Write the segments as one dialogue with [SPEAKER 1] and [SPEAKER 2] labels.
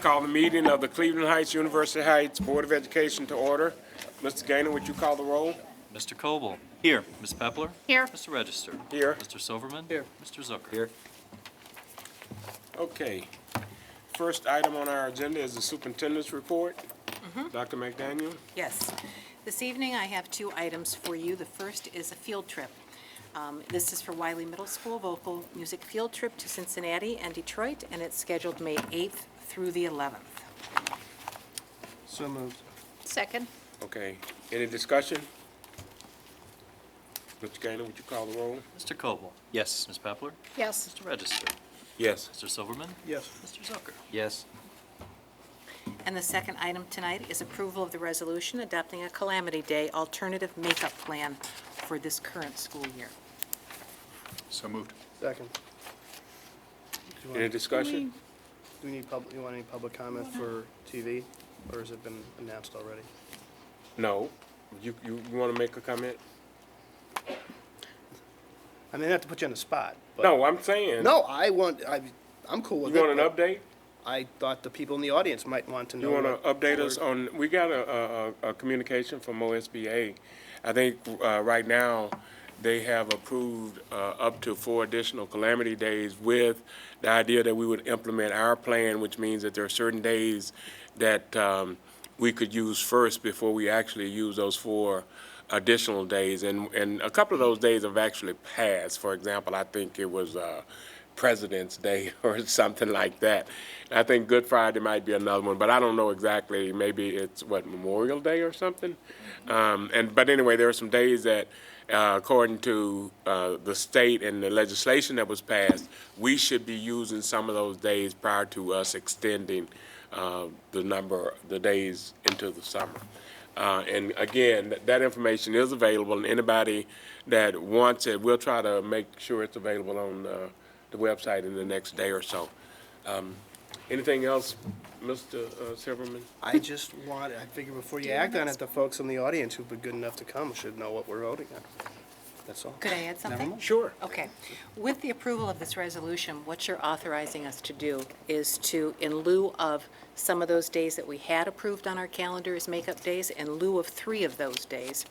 [SPEAKER 1] call the meeting of the Cleveland Heights University Heights Board of Education to order. Mr. Gainer, would you call the roll?
[SPEAKER 2] Mr. Coble. Here. Ms. Pepler.
[SPEAKER 3] Here.
[SPEAKER 2] Mr. Register.
[SPEAKER 1] Here.
[SPEAKER 2] Mr. Silverman.
[SPEAKER 1] Here.
[SPEAKER 2] Mr. Zucker. Here.
[SPEAKER 1] Okay. First item on our agenda is the superintendent's report. Dr. McDaniel?
[SPEAKER 3] Yes. This evening, I have two items for you. The first is a field trip. Um, This is for Wiley Middle School Vocal Music Field Trip to Cincinnati and Detroit, and it's scheduled May 8th through the 11th.
[SPEAKER 1] So moved.
[SPEAKER 3] Second.
[SPEAKER 1] Okay. Any discussion? Mr. Gainer, would you call the roll?
[SPEAKER 2] Mr. Coble. Yes. Ms. Pepler.
[SPEAKER 3] Yes.
[SPEAKER 2] Mr. Register.
[SPEAKER 1] Yes.
[SPEAKER 2] Mr. Silverman.
[SPEAKER 1] Yes.
[SPEAKER 2] Mr. Zucker. Yes.
[SPEAKER 3] And the second item tonight is approval of the resolution adopting a Calamity Day alternative makeup plan for this current school year.
[SPEAKER 4] So moved.
[SPEAKER 5] Second. Do you
[SPEAKER 1] Any
[SPEAKER 5] want, do
[SPEAKER 1] discussion?
[SPEAKER 5] we need public, you want any public comment for TV, or has it been announced already?
[SPEAKER 1] No. You, you, you want to make a comment?
[SPEAKER 5] I mean, not to put you on the spot, but.
[SPEAKER 1] No, I'm saying.
[SPEAKER 5] No, I want, I, I'm cool
[SPEAKER 1] You
[SPEAKER 5] with it.
[SPEAKER 1] want an
[SPEAKER 5] but
[SPEAKER 1] update?
[SPEAKER 5] I thought the people in the audience might want to know.
[SPEAKER 1] You want to
[SPEAKER 5] what-
[SPEAKER 1] update us on, we got a, a, a communication from OSBA. I think, uh, right now, they have approved, uh, up to four additional calamity days with the idea that we would implement our plan, which means that there are certain days that, um, we could use first before we actually use those four additional days. And, and a couple of those days have actually passed. For example, I think it was, uh, President's Day or something like that. And I think Good Friday might be another one, but I don't know exactly. Maybe it's what Memorial Day or something. Um, and but anyway, there are some days that, uh, according to uh, the state and the legislation that was passed, we should be using some of those days prior to us extending uh, the number, the days into the summer. Uh, And again, th- that information is available, and anybody that wants it, we'll try to make sure it's available on uh, the website in the next day or so. Um, Anything else, Mr. uh, Silverman?
[SPEAKER 5] I just want, I figure before you act on it, the folks in the audience who've been good enough to come should know what we're voting on. That's all.
[SPEAKER 3] Could I add something?
[SPEAKER 5] Never mind.
[SPEAKER 1] Sure.
[SPEAKER 3] Okay. With the approval of this resolution, what you're authorizing us to do is to, in lieu of some of those days that we had approved on our calendar as makeup days, in lieu of three of those days,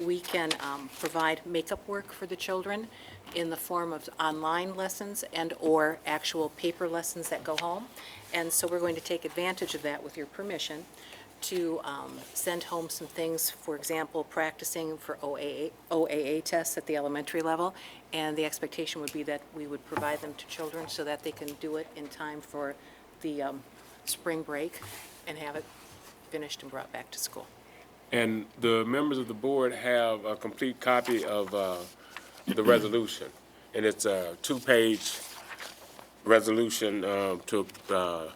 [SPEAKER 3] we can um, provide makeup work for the children in the form of online lessons and/or actual paper lessons that go home. And so we're going to take advantage of that with your permission to um, send home some things, for example, practicing for OAA, OAA tests at the elementary level, and the expectation would be that we would provide them to children so that they can do it in time for the um, spring break and have it finished and brought back to school.
[SPEAKER 1] And the members of the board have a complete copy of uh, the resolution. And it's a two-page resolution um, to, uh,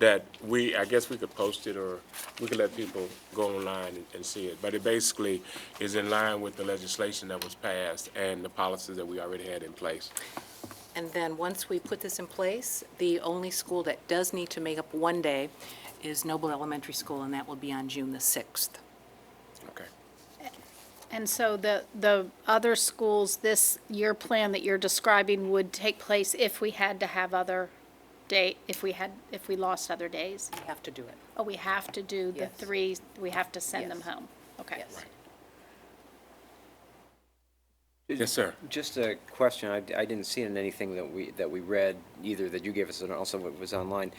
[SPEAKER 1] that we, I guess we could post it, or we could let people go online and- and see it. But it basically is in line with the legislation that was passed and the policies that we already had in place.
[SPEAKER 3] And then, once we put this in place, the only school that does need to make up one day is Noble Elementary School, and that will be on June the 6th.
[SPEAKER 1] Okay.
[SPEAKER 6] And so the, the other schools, this year plan that you're describing would take place if we had to have other day, if we had, if we lost other days?
[SPEAKER 3] We have to do it.
[SPEAKER 6] Oh, we have to do the
[SPEAKER 3] Yes.
[SPEAKER 6] three, we have to send them
[SPEAKER 3] Yes.
[SPEAKER 6] home? Okay.
[SPEAKER 3] Yes.
[SPEAKER 1] Yes, sir.
[SPEAKER 7] Just a question, I, I didn't see it in anything that we, that we read either, that you gave us, and also what was online.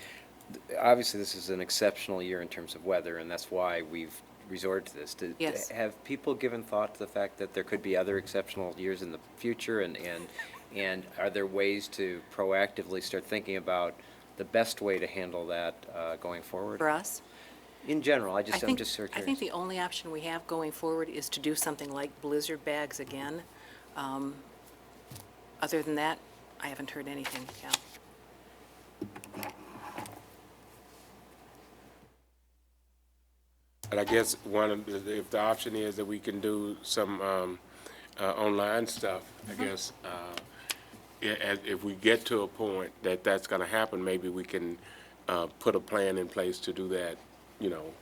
[SPEAKER 7] Th- Obviously, this is an exceptional year in terms of weather, and that's why we've resorted to this. Did-
[SPEAKER 3] Yes.
[SPEAKER 7] Have people given thought to the fact that there could be other exceptional years in the future, and, and, and are there ways to proactively start thinking about the best way to handle that, uh, going forward?
[SPEAKER 3] For us?
[SPEAKER 7] In general, I
[SPEAKER 3] I
[SPEAKER 7] just, I'm
[SPEAKER 3] think,
[SPEAKER 7] just sort of
[SPEAKER 3] I
[SPEAKER 7] curious.
[SPEAKER 3] think the only option we have going forward is to do something like blizzard bags again. Um, Other than that, I haven't heard anything, Cal.
[SPEAKER 1] And I guess one of, the- if the option is that we can do some um, uh, online stuff, I guess, uh, i- as- if we get to a point that that's going to happen, maybe we can uh, put a plan in place to do that, you know,